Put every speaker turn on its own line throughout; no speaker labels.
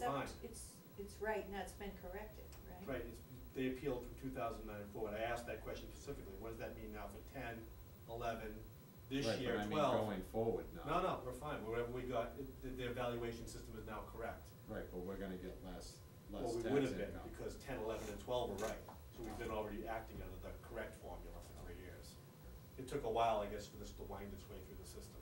nine.
It's, it's right, and that's been corrected, right?
Right, it's, they appealed from two thousand nine forward, I asked that question specifically, what does that mean now for ten, eleven, this
Right,
year, twelve?
But I mean, going forward now.
No, no, we're fine, whatever we got, it- the, the evaluation system is now correct.
Right, but we're gonna get less, less tax
Well, we
income.
would have been, because ten, eleven, and twelve were right, so we've been already acting under the correct formula for three years. It took a while, I guess, for this to wind its way through the system.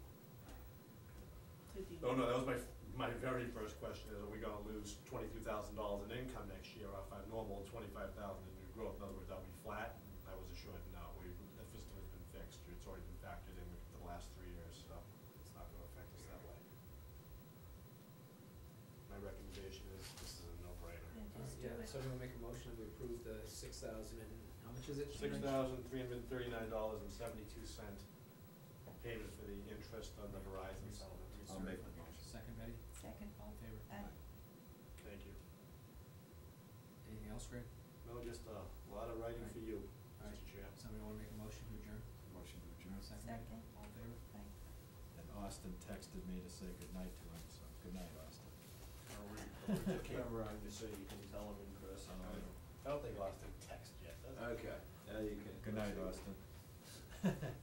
Did you-
Oh, no, that was my, f- my very first question, is are we gonna lose twenty-two thousand dollars in income next year off our normal twenty-five thousand in new growth? In other words, are we flat? I was assured, no, we, the system has been fixed, it's already been factored in for the last three years, so it's not gonna affect us that way. My recommendation is, this is a no-brainer.
Yeah, just do
Yeah,
it.
so I'm gonna make a motion that we approve the six thousand and, how much is it?
Six thousand three hundred and thirty-nine dollars and seventy-two cent payment for the interest on the Verizon settlement.
I'll make the motion.
Second, Betty,
Second. uh,
all in favor?
Aye.
Thank you.
Anything else, Greg?
No, just a lot of writing for you, Mr. Chair.
Somebody wanna make a motion to adjourn?
Motion to adjourn.
Second, Betty,
Second. uh,
all in favor?
Aye.
And Austin texted me to say goodnight to him, so good night, Austin.
Camera on just so you can tell them in person.
Oh.
I don't think Austin texted yet, does he?
Good night, Austin.